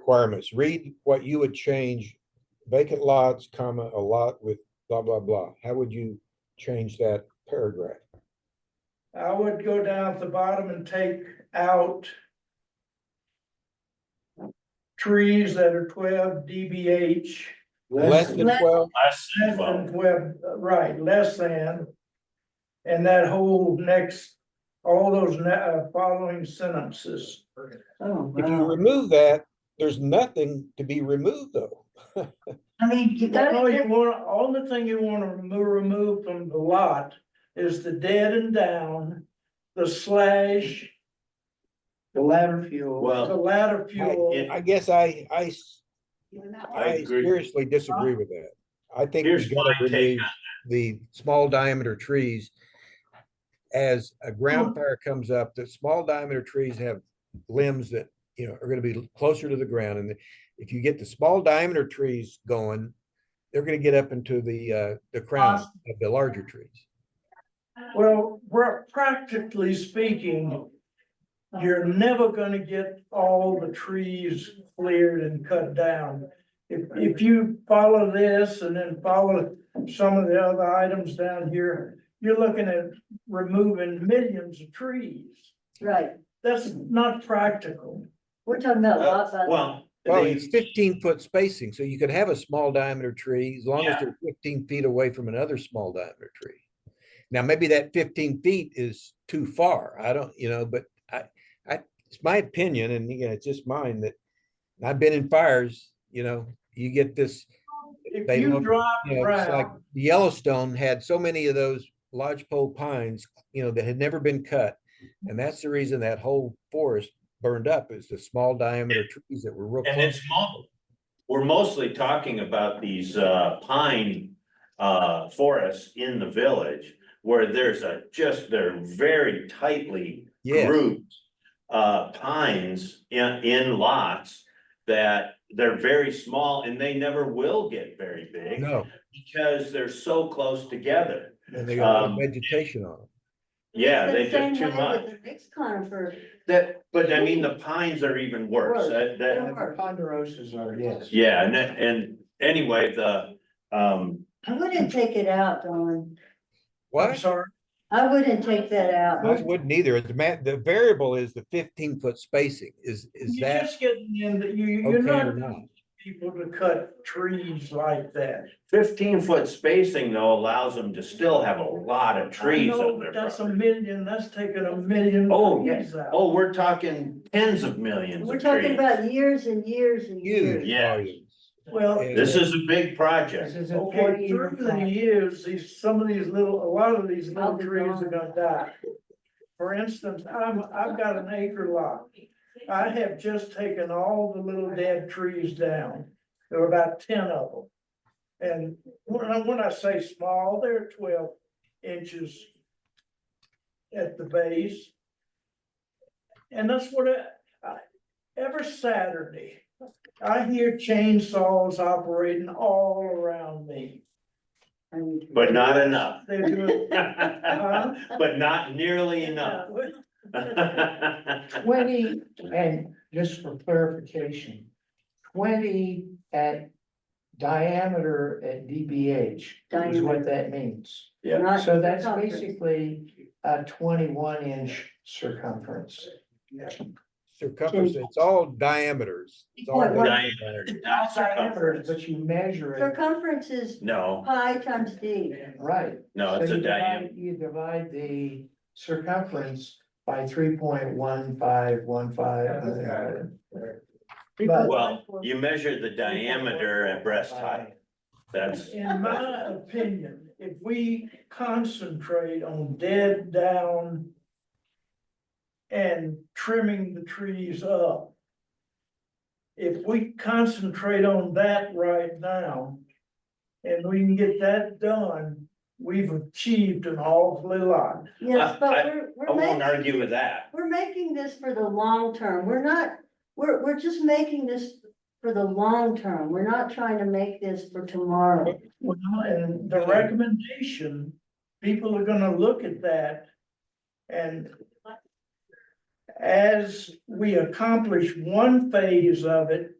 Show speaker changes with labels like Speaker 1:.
Speaker 1: requirements. Read what you would change vacant lots, comma, a lot with blah, blah, blah. How would you change that paragraph?
Speaker 2: I would go down at the bottom and take out. Trees that are twelve dBH,
Speaker 1: Less than
Speaker 3: Less-
Speaker 1: twelve,
Speaker 4: Less than
Speaker 2: less
Speaker 4: twelve.
Speaker 2: than twelve, right, less than. And that whole next, all those ne- uh, following sentences.
Speaker 3: Oh,
Speaker 1: if you
Speaker 3: wow.
Speaker 1: remove that, there's nothing to be removed though.
Speaker 3: I mean, you
Speaker 2: All you
Speaker 3: gotta,
Speaker 2: want, all the thing you wanna remo- remove from the lot is the dead and down, the slash,
Speaker 3: the ladder fuel.
Speaker 2: the
Speaker 4: Well,
Speaker 2: ladder fuel.
Speaker 4: it-
Speaker 1: I guess I, I, s-
Speaker 4: I
Speaker 1: I
Speaker 4: agree.
Speaker 1: seriously disagree with that. I think
Speaker 4: Here's
Speaker 1: we
Speaker 4: what
Speaker 1: gotta
Speaker 4: I take.
Speaker 1: remove the small diameter trees. As a ground fire comes up, the small diameter trees have limbs that, you know, are gonna be closer to the ground. And if you get the small diameter trees going, they're gonna get up into the, uh, the crown of the larger trees.
Speaker 2: Well, we're practically speaking, you're never gonna get all the trees cleared and cut down. If, if you follow this and then follow some of the other items down here, you're looking at removing millions of trees.
Speaker 3: Right,
Speaker 2: That's not practical.
Speaker 3: we're talking about lots
Speaker 4: uh,
Speaker 3: of.
Speaker 4: Well,
Speaker 1: Well,
Speaker 4: the-
Speaker 1: it's fifteen foot spacing, so you could have a small diameter tree as long as
Speaker 4: Yeah.
Speaker 1: they're fifteen feet away from another small diameter tree. Now, maybe that fifteen feet is too far. I don't, you know, but I, I, it's my opinion and you know, it's just mine that and I've been in fires, you know, you get this,
Speaker 2: If
Speaker 1: They
Speaker 2: you
Speaker 1: look-
Speaker 2: drive
Speaker 1: you know, it's like
Speaker 2: around,
Speaker 1: Yellowstone had so many of those lodgepole pines, you know, that had never been cut. And that's the reason that whole forest burned up is the small diameter trees that were real
Speaker 4: and
Speaker 1: close.
Speaker 4: it's mobile. We're mostly talking about these uh pine uh forests in the village where there's a just, they're very tightly
Speaker 1: Yes.
Speaker 4: grouped uh pines in in lots that they're very small and they never will get very big
Speaker 1: No,
Speaker 4: because they're so close together.
Speaker 1: and they got a lot of
Speaker 4: Um,
Speaker 1: vegetation on them.
Speaker 4: Yeah,
Speaker 3: It's the
Speaker 4: they
Speaker 3: same
Speaker 4: just too
Speaker 3: way with
Speaker 4: much.
Speaker 3: the Next conifer,
Speaker 4: That, but I mean, the pines are even worse.
Speaker 3: Worse.
Speaker 4: That
Speaker 3: they
Speaker 4: that
Speaker 3: don't work.
Speaker 2: Ponderosas are, yes.
Speaker 4: Yeah, and that- and anyway, the, um,
Speaker 3: I wouldn't take it out, Dawn,
Speaker 2: I'm
Speaker 1: What?
Speaker 2: sorry,
Speaker 3: I wouldn't take that
Speaker 1: I
Speaker 3: out,
Speaker 1: wouldn't either. The ma, the variable is the fifteen foot spacing. Is, is
Speaker 2: you're
Speaker 1: that
Speaker 2: just getting in, that you, you're
Speaker 1: okay or
Speaker 2: not
Speaker 1: not?
Speaker 2: people to cut trees like that.
Speaker 4: fifteen foot spacing though allows them to still have a lot of trees
Speaker 2: I know,
Speaker 4: on
Speaker 2: but
Speaker 4: their
Speaker 2: That's a
Speaker 4: property.
Speaker 2: million, that's taking a million.
Speaker 4: Oh,
Speaker 2: trees out.
Speaker 4: Oh, we're talking tens of millions
Speaker 3: we're
Speaker 4: of
Speaker 3: talking
Speaker 4: trees.
Speaker 3: about years and years and
Speaker 1: Huge
Speaker 3: years.
Speaker 4: Yeah.
Speaker 1: volumes.
Speaker 2: Well.
Speaker 1: Yeah.
Speaker 4: This is a big project.
Speaker 3: is
Speaker 2: Okay, through the years, these, some of these little, a lot of these little
Speaker 3: I'll be
Speaker 2: trees are
Speaker 3: gone.
Speaker 2: gonna die. For instance, I'm, I've got an acre lot. I have just taken all the little dead trees down. There were about ten of them. And when I, when I say small, they're twelve inches at the base. And that's what I, I, every Saturday, I hear chainsaws operating all around me.
Speaker 4: But not enough.
Speaker 2: They're doing.
Speaker 4: But not nearly enough.
Speaker 5: Twenty, and just for clarification, twenty at diameter at DBH is
Speaker 3: Diameter.
Speaker 5: what that means.
Speaker 4: Yeah.
Speaker 3: Not
Speaker 5: So that's
Speaker 3: conifers.
Speaker 5: basically a twenty-one inch circumference.
Speaker 1: Circumference, it's all diameters. It's all
Speaker 3: Diameter.
Speaker 1: diameters.
Speaker 4: Not
Speaker 5: Diameter,
Speaker 4: circumference.
Speaker 5: but you measure it,
Speaker 3: Circumference is
Speaker 4: No,
Speaker 3: pi times d,
Speaker 5: right.
Speaker 4: no,
Speaker 5: So
Speaker 4: it's a
Speaker 5: you divide-
Speaker 4: diameter.
Speaker 5: You divide the circumference by three point one five one five. But-
Speaker 4: Well, you measure the diameter at breast height. That's,
Speaker 2: In my opinion, if we concentrate on dead down and trimming the trees up, if we concentrate on that right now, and we can get that done, we've achieved an awfully lot.
Speaker 3: yes,
Speaker 4: I-
Speaker 3: but we're,
Speaker 4: I
Speaker 3: we're
Speaker 4: won't
Speaker 3: making,
Speaker 4: argue with that.
Speaker 3: we're making this for the long term, we're not, we're, we're just making this for the long term, we're not trying to make this for tomorrow.
Speaker 2: Well, and the recommendation, people are gonna look at that and as we accomplish one phase of it,